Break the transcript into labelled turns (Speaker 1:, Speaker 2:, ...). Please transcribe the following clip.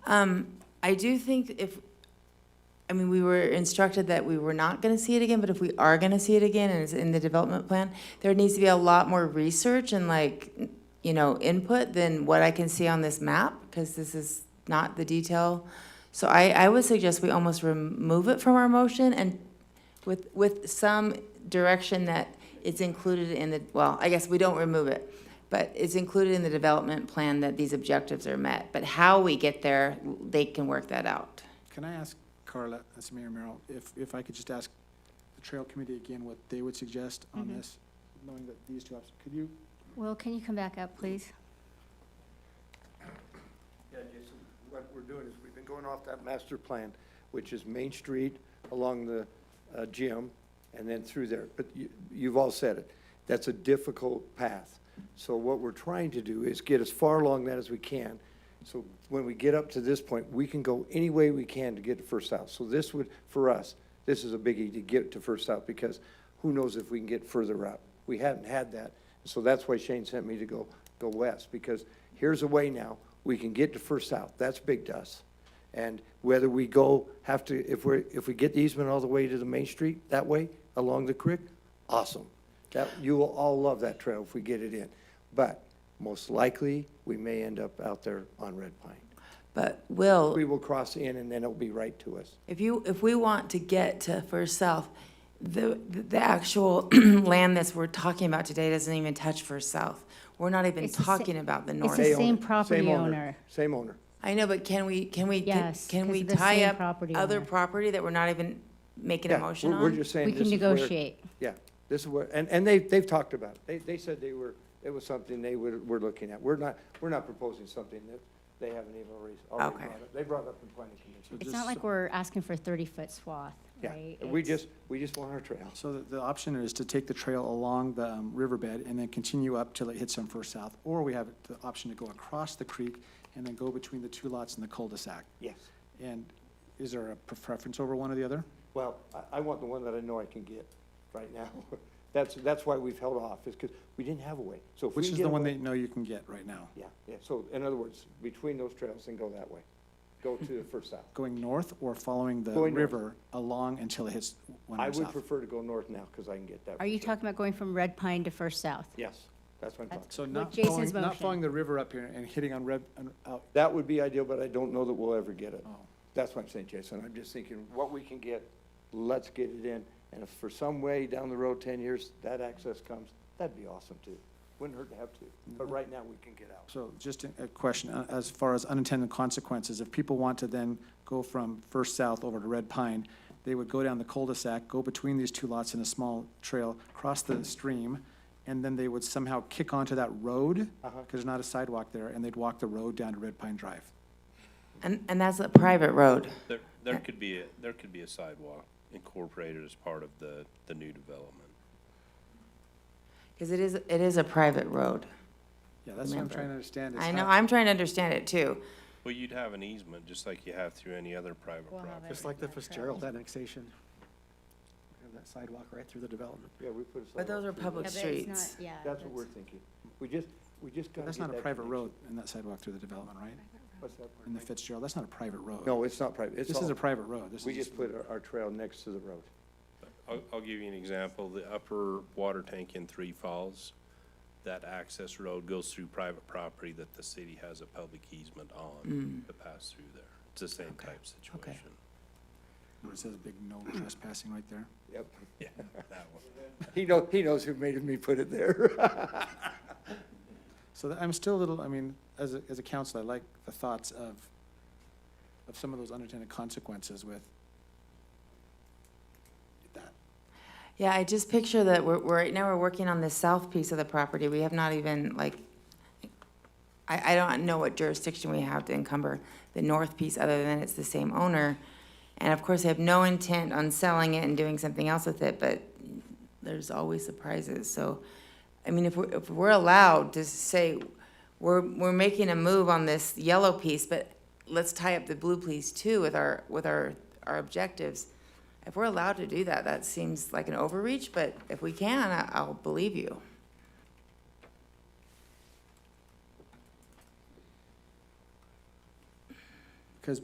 Speaker 1: Um, I do think if, I mean, we were instructed that we were not gonna see it again, but if we are gonna see it again and it's in the development plan, there needs to be a lot more research and like, you know, input than what I can see on this map, because this is not the detail. So I, I would suggest we almost remove it from our motion and with, with some direction that it's included in the, well, I guess we don't remove it, but it's included in the development plan that these objectives are met. But how we get there, they can work that out.
Speaker 2: Can I ask Carla, uh, that's Mayor Merrill, if, if I could just ask the trail committee again what they would suggest on
Speaker 3: Mm-hmm.
Speaker 1: Mhm.
Speaker 2: this, knowing that these two options, could you?
Speaker 4: Will, can you come back up, please?
Speaker 3: Yeah, Jason, what we're doing is we've been going off that master plan, which is Main Street along the uh, gym and then through there. But you, you've all said it. That's a difficult path. So what we're trying to do is get as far along that as we can. So when we get up to this point, we can go any way we can to get to First South. So this would, for us, this is a biggie to get to First South because who knows if we can get further up. We haven't had that. So that's why Shane sent me to go, go west because here's a way now. We can get to First South. That's big to us. And whether we go, have to, if we're, if we get the easement all the way to the main street, that way, along the creek, awesome. That, you will all love that trail if we get it in. But most likely, we may end up out there on Red Pine.
Speaker 1: But Will,
Speaker 3: We will cross in and then it'll be right to us.
Speaker 1: If you, if we want to get to First South, the, the actual land that's we're talking about today doesn't even touch First South. We're not even
Speaker 4: It's the sa-
Speaker 1: talking about the
Speaker 4: it's
Speaker 1: north.
Speaker 4: the
Speaker 3: They own
Speaker 4: same
Speaker 3: it.
Speaker 4: property
Speaker 3: Same
Speaker 4: owner.
Speaker 3: Same owner.
Speaker 1: I know, but can we, can we, get-
Speaker 4: Yes,
Speaker 1: can
Speaker 4: 'cause
Speaker 1: we
Speaker 4: of the
Speaker 1: tie
Speaker 4: same
Speaker 1: up
Speaker 4: property
Speaker 1: other
Speaker 4: owner.
Speaker 1: property that we're not even making a
Speaker 3: Yeah,
Speaker 1: motion
Speaker 3: we're- We're
Speaker 1: on?
Speaker 3: just saying
Speaker 4: We
Speaker 3: this
Speaker 4: can
Speaker 3: is where-
Speaker 4: negotiate.
Speaker 3: Yeah, this is where, and, and they, they've talked about it. They, they said they were, it was something they were, were looking at. We're not, we're not proposing something that they haven't even already, already
Speaker 1: Okay.
Speaker 3: brought up. They brought it up in planning commission.
Speaker 4: It's not like we're asking for a 30-foot swath, right?
Speaker 3: Yeah, we
Speaker 4: It's-
Speaker 3: just, we just want our trails.
Speaker 2: So the, the option is to take the trail along the um, riverbed and then continue up till it hits on First South. Or we have the option to go across the creek and then go between the two lots in the cul-de-sac.
Speaker 3: Yes.
Speaker 2: And is there a pre- preference over one or the other?
Speaker 3: Well, I, I want the one that I know I can get right now. That's, that's why we've held off, is because we didn't have a way. So if we
Speaker 2: Which
Speaker 3: can
Speaker 2: is
Speaker 3: get
Speaker 2: the
Speaker 3: a
Speaker 2: one
Speaker 3: way-
Speaker 2: they know you can get right now?
Speaker 3: Yeah, yeah. So in other words, between those trails and go that way. Go to the first south.
Speaker 2: Going north or following the
Speaker 3: Going north.
Speaker 2: river along until it hits one
Speaker 3: I
Speaker 2: or
Speaker 3: would
Speaker 2: south?
Speaker 3: prefer to go north now because I can get that.
Speaker 4: Are you
Speaker 3: for sure.
Speaker 4: talking about going from Red Pine to First South?
Speaker 3: Yes, that's what I'm talking.
Speaker 4: That's-
Speaker 2: So
Speaker 4: With
Speaker 2: not
Speaker 4: Jason's
Speaker 2: following, not
Speaker 4: motion.
Speaker 2: following the river up here and hitting on Red, on- out,
Speaker 3: That would be ideal, but I don't know that we'll ever get it.
Speaker 2: oh.
Speaker 3: That's what I'm saying, Jason. I'm just thinking, what we can get, let's get it in. And if for some way down the road, ten years, that access comes, that'd be awesome too. Wouldn't hurt to have two, but
Speaker 2: Mm-hmm.
Speaker 3: right now we can get out.
Speaker 2: So just a a question, uh, as far as unintended consequences, if people want to then go from First South over to Red Pine, they would go down the cul-de-sac, go between these two lots in a small trail, cross the stream, and then they would somehow kick onto that road,
Speaker 3: Uh-huh.
Speaker 2: because there's not a sidewalk there, and they'd walk the road down to Red Pine Drive.
Speaker 1: And, and that's a private road.
Speaker 5: There, there could be, a there could be a sidewalk incorporated as part of the, the new development.
Speaker 1: Because it is, it is a private road.
Speaker 2: Yeah, that's what I'm
Speaker 1: Remember.
Speaker 2: trying to understand. is
Speaker 1: I
Speaker 2: how-
Speaker 1: know, I'm trying to understand it too.
Speaker 5: Well, you'd have an easement, just like you have through any other private
Speaker 4: We'll have
Speaker 5: property.
Speaker 6: Just like the Fitzgerald annexation. We Have that sidewalk right through the development.
Speaker 3: Yeah, we put a sidewalk.
Speaker 1: But those are
Speaker 3: through
Speaker 1: public
Speaker 4: Yeah,
Speaker 3: there.
Speaker 4: but it's
Speaker 1: streets.
Speaker 4: not- Yeah.
Speaker 3: That's what we're thinking. We just, we just got
Speaker 2: That's not a private road in that sidewalk through the development, right?
Speaker 3: What's that part?
Speaker 2: In the Fitzgerald, that's not a private road.
Speaker 3: No, it's not private. It's
Speaker 2: This is
Speaker 3: all-
Speaker 2: a private road. This is.
Speaker 3: We just put our, our trail next to the road.
Speaker 5: I'll, I'll give you an example, the upper water tank in Three Falls, that access road goes through private property that the city has a public easement on to pass through there. It's the same type
Speaker 1: Mm. okay.
Speaker 5: situation.
Speaker 2: It says big no trespassing right there.
Speaker 3: Yep.
Speaker 5: Yeah, that one.
Speaker 3: He knows, he knows who made me put it there.
Speaker 2: So that- I'm still a little, I mean, as a, as a council, I like the thoughts of, of some of those unintended consequences with that.
Speaker 1: Yeah, I just picture that we're, we're, right now we're working on the south piece of the property. We have not even, like, I, I don't know what jurisdiction we have to encumber the north piece, other than it's the same owner. And of course, they have no intent on selling it and doing something else with it, but there's always surprises, so. I mean, if we're, if we're allowed to say, we're, we're making a move on this yellow piece, but let's tie up the blue piece too with our, with our, our objectives. If we're allowed to do that, that seems like an overreach, but if we can, I- I'll believe you.